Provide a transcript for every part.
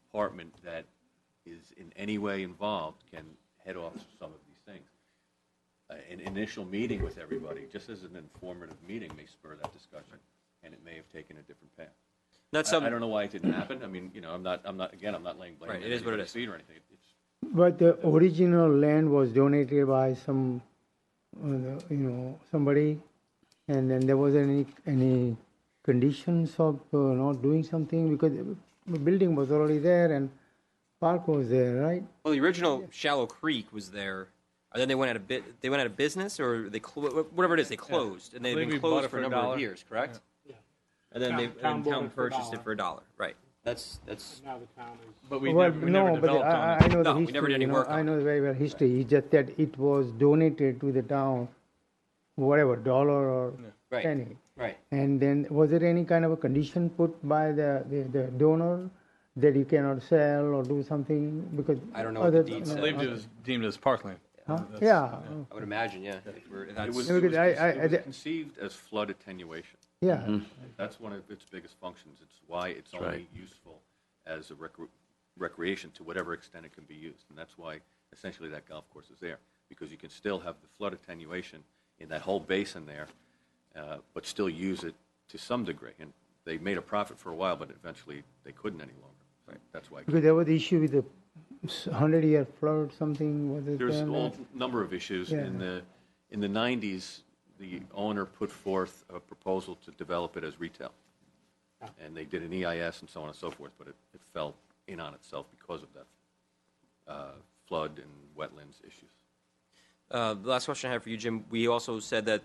department that is in any way involved can head off some of these things. Uh, An initial meeting with everybody, just as an informative meeting, may spur that discussion, and it may have taken a different path. Not I- I some, don't know why it didn't happen. I mean, you know, I'm not, I'm not, again, I'm not laying blame. Right, on it is what it anybody's is. feet or anything. It's- But the original land was donated by some, uh, the- you know, somebody, and then there was any, any conditions of uh, not doing something because the building was already there and park was there, right? well, the original Shallow Creek was there, and then they went out of bit, they went out of business, or they, clo- whatever it is, they closed, and they've believe been we bought closed it for for a a number of dollar. years, correct? And then Town- they, and town bought town it for a purchased it dollar. for a dollar, right. That's, that's, Now the town is. But we Well, never, we never no, but developed I- on I it. know the No, we never history, did any you know, work I on know very well history, it's just that it was donated to the town, whatever, dollar or Right. penny. Right. And then, was there any kind of a condition put by the, the, the donor that you cannot sell or do something because? I don't know what the other- deed no, I said. believed it was deemed as parkland. huh? That's- Yeah, I would imagine, yeah. if we're- it that's- was, No, it was because I- I- conce- it I was di- conceived as flood attenuation. yeah, Mm-hmm. That's one of its biggest functions. It's why it's only useful as a recre- recreation to whatever extent it can be used. And that's why essentially that golf course is there, because you can still have the flood attenuation in that whole basin there, uh, but still use it to some degree. And they made a profit for a while, but eventually they couldn't any longer. That's why. because there was the issue with the hundred-year flood, something, was it? There's a then? whole number of issues. In Yeah. the, in the 90s, the owner put forth a proposal to develop it as retail. And they did an EIS and so on and so forth, but it, it fell in on itself because of that uh, flood and wetlands issues. Uh, The last question I have for you, Jim, we also said that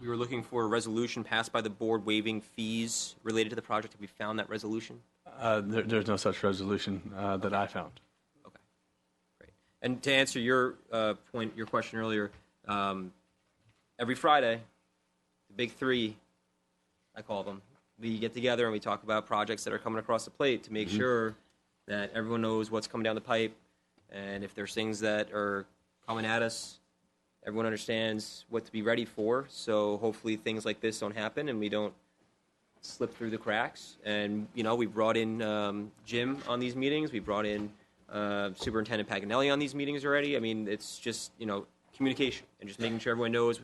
we were looking for a resolution passed by the board waiving fees related to the project. Have we found that resolution? Uh, there, there's no such resolution uh, that I found. Okay, great. And to answer your uh, point, your question earlier, um, every Friday, the big three, I call them, we get together and we talk about projects that are coming across the plate to make sure that everyone knows what's coming down the pipe, and if there's things that are coming at us, everyone understands what to be ready for. So hopefully, things like this don't happen, and we don't slip through the cracks. And you know, we brought in um, Jim on these meetings. We brought in uh, Superintendent Paganelli on these meetings already. I mean, it's just you know communication and just making sure everyone knows.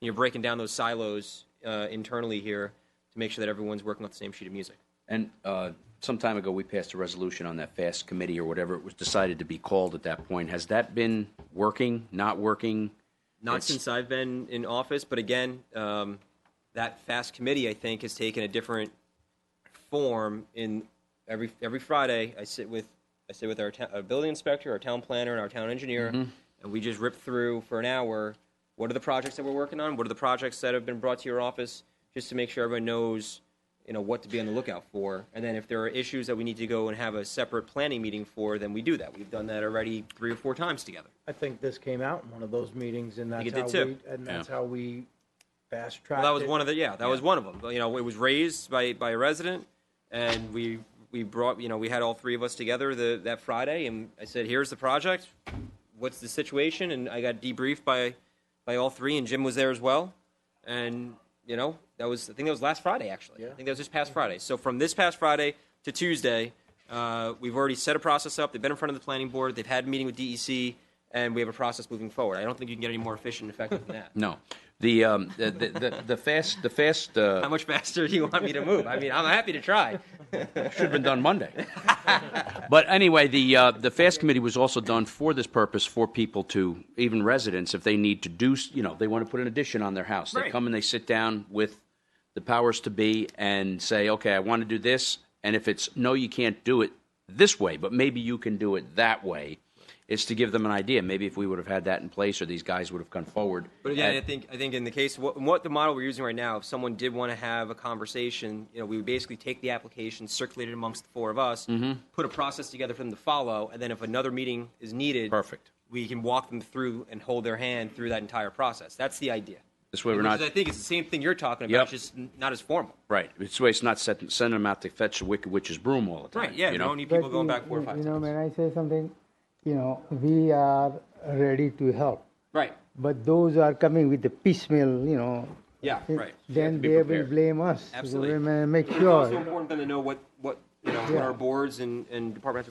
You're breaking down those silos uh, internally here to make sure that everyone's working off the same sheet of music. And uh, some time ago, we passed a resolution on that FAST committee or whatever it was decided to be called at that point. Has that been working, not working? Not It's- since I've been in office, but again, um, that fast committee I think has taken a different form. In every every Friday, I sit with I sit with our, ta- our building inspector, our town planner, and our town engineer, and we just rip through for an hour. What are the projects that we're working on? What are the projects that have been brought to your office? Just to make sure everyone knows, you know, what to be on the lookout for. And then if there are issues that we need to go and have a separate planning meeting for, then we do that. We've done that already three or four times together. I think this came out in one of those meetings, and think that's it how did we, too. and that's how we fast tracked. Well, that was one of the yeah, that was one of them. But, You know, it was raised by by a resident, and we we brought you know we had all three of us together the, that Friday, and I said, "Here's the project. What's the situation?" And I got debriefed by by all three, and Jim was there as well. And you know, that was I think that was last Friday actually. I think that was this past Friday. So from this past Friday to Tuesday, uh, we've already set a process up. They've been in front of the planning board. They've had a meeting with DEC. And we have a process moving forward. I don't think you can get any more efficient and effective than that. No. The um, the, the, the the FAST the FAST How uh, much faster do you want me to move? I mean, I'm happy to try. should have been done Monday. but anyway, the uh, the FAST committee was also done for this purpose for people to even residents if they need to do s- you know they want to put an addition on their house they Right. come and they sit down with the powers to be and say okay I want to do this and if it's no you can't do it this way but maybe you can do it that way is to give them an idea maybe if we would have had that in place or these guys would have come forward But again, at- I think I think in the case what, what the model we're using right now, if someone did want to have a conversation, you know, we would basically take the application, circulate it amongst the four of us, Mm-hmm. put a process together for them to follow, and then if another meeting is needed, Perfect. we can walk them through and hold their hand through that entire process. That's the idea. this way we're Which not is, I think it's the same thing you're talking about, Yep. it's just n- not as formal. Right. It's way it's not set, sending them out to fetch a wicked witch's broom all the time. Right? Yeah. You You know? don't need people But going you- back four or you- five You know, times. when I say something, you know, we are ready to help, Right. but those are coming with the piecemeal, you know. Yeah. it- Right. Then be they will prepared. blame us. Absolutely. We may Make It's also sure. important for them to know what what you know what Yeah. our boards and and departments.